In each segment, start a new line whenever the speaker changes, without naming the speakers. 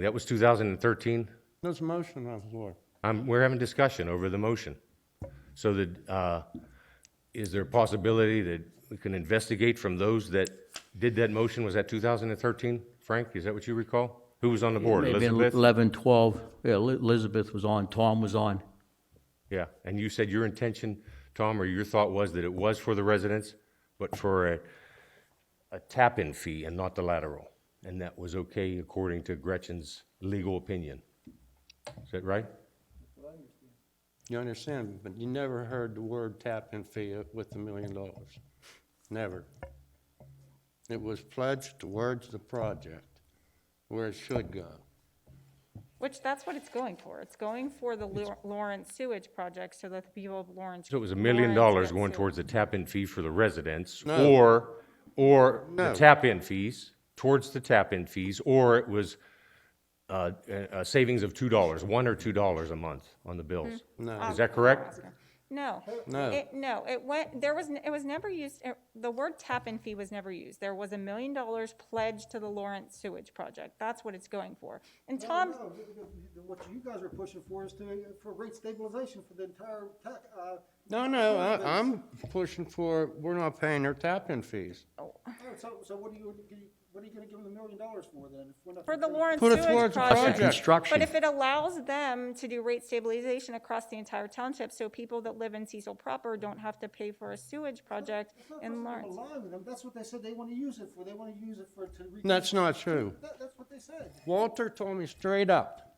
That was 2013.
There's a motion on the floor.
I'm, we're having discussion over the motion. So that, uh, is there a possibility that we can investigate from those that did that motion? Was that 2013? Frank, is that what you recall? Who was on the board?
Maybe in
Elizabeth?
11, 12, yeah, Li- Elizabeth was on, Tom was on.
Yeah, and you said your intention, Tom, or your thought was that it was for the residents, but for a, a tap-in fee and not the lateral. And that was okay according to Gretchen's legal opinion. Is that right?
You understand, but you never heard the word tap-in fee with the million dollars. Never. It was pledged towards the project, where it should go.
Which, that's what it's going for. It's going for the Lor- Lawrence sewage project so that the people of Lawrence.
So it was a million
Lawrence
dollars
get
going
sewage.
towards the tap-in fee for the residents,
No.
or, or the
No.
tap-in fees, towards the tap-in fees, or it was uh, a a savings of two dollars, one or two dollars a month on the bills.
Hmm. No.
Is that correct?
No.
No.
It, no, it went, there was, n- it was never used, it- the word tap-in fee was never used. There was a million dollars pledged to the Lawrence sewage project. That's what it's going for. And Tom,
No, because you- What you guys are pushing for is to, for rate stabilization for the entire tax, uh,
No, no, I, I'm pushing for, we're not paying their tap-in fees.
no, so, so what are you, what are you gonna give them a million dollars for then? if we're not
for the
gonna-
Lawrence
Put it
sewage
towards the
project.
project.
Construction.
But if it allows them to do rate stabilization across the entire township, so people that live in Cecil proper don't have to pay for a sewage project
It's
in
not personal
Lawrence.
maligning them. That's what they said they wanna use it for, they wanna use it for, to. re-
That's not true.
That, that's what they said.
Walter told me straight up.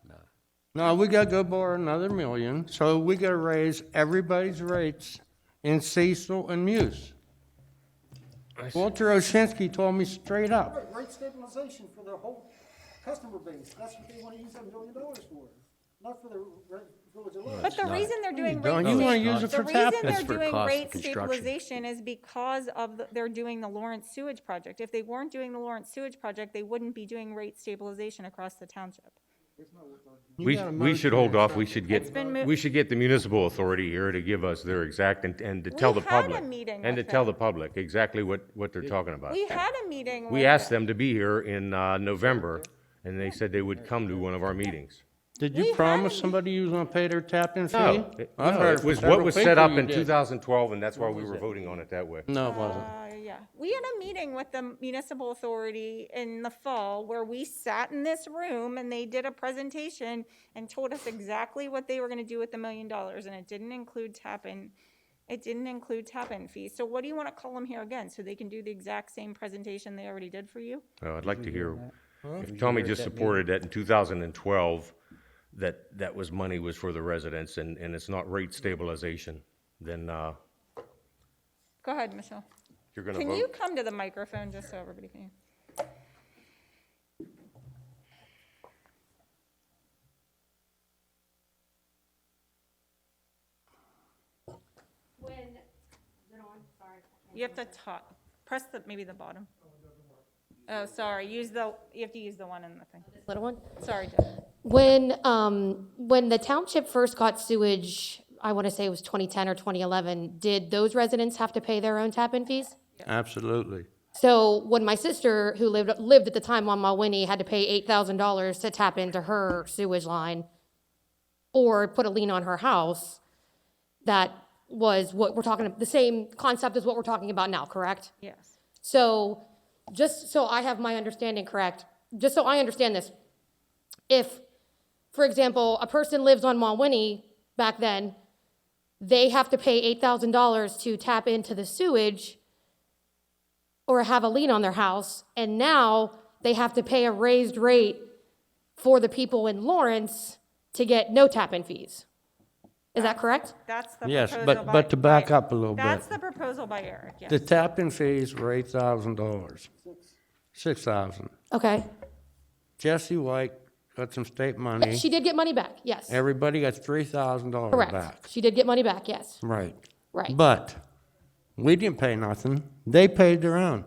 No, we gotta go borrow another million, so we gotta raise everybody's rates in Cecil and Muse. Walter Oshinsky told me straight up.
Right, rate stabilization for their whole customer base, that's what they wanna use that million dollars for, not for the re- village of Lawrence.
But the reason they're doing
don't.
rate.
You wanna
sta-
use it for
The
tap-in.
reason
That's
they're
for
doing
cost of
rate
construction.
stabilization is because of, the- they're doing the Lawrence sewage project. If they weren't doing the Lawrence sewage project, they wouldn't be doing rate stabilization across the township.
We,
got a
we should
motion
hold
and a
off, we should get,
been mo-
we should get the municipal authority here to give us their exact, and, and to tell the
We had a
public.
meeting
And to
with
tell the
them.
public exactly what, what they're talking about.
We had a meeting with.
We asked them to be here in, uh, November, and they said they would come to one of our meetings.
Did
We
you
had
promise
a-
somebody you was gonna pay their tap-in fee?
No, Oh, it-
I've
no,
heard
it
from
was what
several
was set
people
up
you
in
did.
2012, and that's why we were voting on it that way.
No, it wasn't.
Uh, yeah, we had a meeting with the municipal authority in the fall where we sat in this room and they did a presentation and told us exactly what they were gonna do with the million dollars and it didn't include tap-in, it didn't include tap-in fees. So what do you wanna call them here again, so they can do the exact same presentation they already did for you?
Well, I'd like to hear, if Tommy just supported that in 2012, that, that was money was for the residents, and, and it's not rate stabilization, then, uh,
Go ahead, Michelle.
you're gonna vote.
Can you come to the microphone just so everybody can?
When, is it on? Sorry.
You have to talk, press the, maybe the bottom. Oh, sorry, use the, you have to use the one in the thing.
Little one?
Sorry, Deb.
When, um, when the township first got sewage, I want to say it was 2010 or 2011, did those residents have to pay their own tap-in fees?
Absolutely.
So when my sister, who lived, lived at the time on Mawinnie, had to pay $8,000 to tap into her sewage line or put a lien on her house, that was what we're talking, the same concept as what we're talking about now, correct?
yes.
So, just so I have my understanding correct, just so I understand this, if, for example, a person lives on Mawinnie back then, they have to pay eight thousand dollars to tap into the sewage or have a lien on their house, and now they have to pay a raised rate for the people in Lawrence to get no tap-in fees. Is that correct?
That's the
Yes,
proposal
but-
by-
but to back
by-
up a little
That's the
bit.
proposal by Eric,
The
yes.
tap-in fees were eight thousand dollars. Six thousand.
Okay.
Jesse White got some state money.
She did get money back, yes.
Everybody got three thousand dollars back.
Correct. She did get money back, yes.
Right.
Right.
But we didn't pay nothing. They paid their own.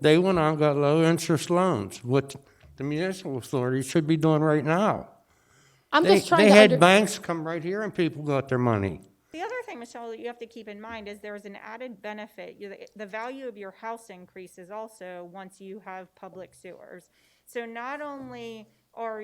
They went out and got low interest loans, which the municipal authority should be doing right now.
I'm
They,
just trying
they
to
had
under-
banks come right here and people got their money.
The other thing, Michelle, that you have to keep in mind is there's an added benefit. You- The the value of your house increases also once you have public sewers. So not only are